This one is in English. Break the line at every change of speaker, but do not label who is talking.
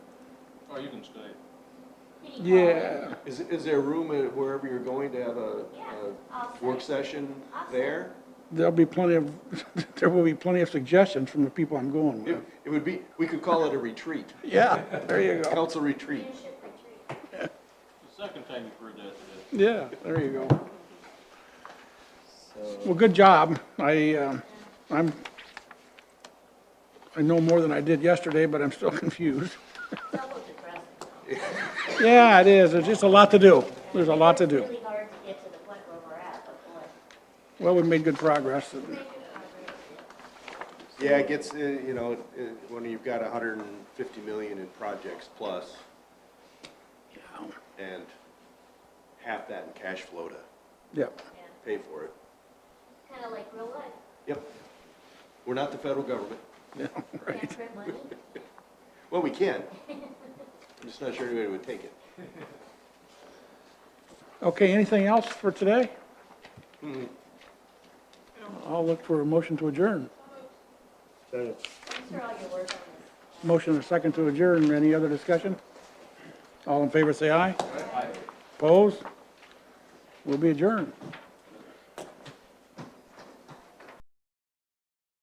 Oh, you can stay.
Any
Yeah,
comments?
is, is there room at wherever you're going to have a,
Yeah, I'll
a work
say.
session there?
There'll be plenty of, there will be plenty of suggestions from the people I'm going
It,
with.
it would be, we could call it a retreat,
Yeah, there you go.
council retreat.
Leadership retreat.
The second time you've heard that today.
Yeah, there you go. Well, good job. I, um, I'm, I know more than I did yesterday, but I'm still confused.
Double depressing. though.
Yeah, it is. There's just a lot to do. There's a lot to
It's
do.
really hard to get to the point where we're at, but boy.
Well, we made good progress.
thank you, Margaret.
Yeah, it gets, uh, you know, it- it- when you've got hundred and fifty million in projects plus, and half that in cash flow to
Yep.
Yeah,
pay for it.
Kind of like real life.
Yep. We're not the federal government.
Yeah, right.
Can't print money.
Well, we can. I'm just not sure anybody would take it.
Okay, anything else for today? I'll look for a motion to adjourn.
Thanks for all your work on this.
Motion and a second to adjourn. Any other discussion? All in favor, say aye. Aye. Opposed? We'll be adjourned.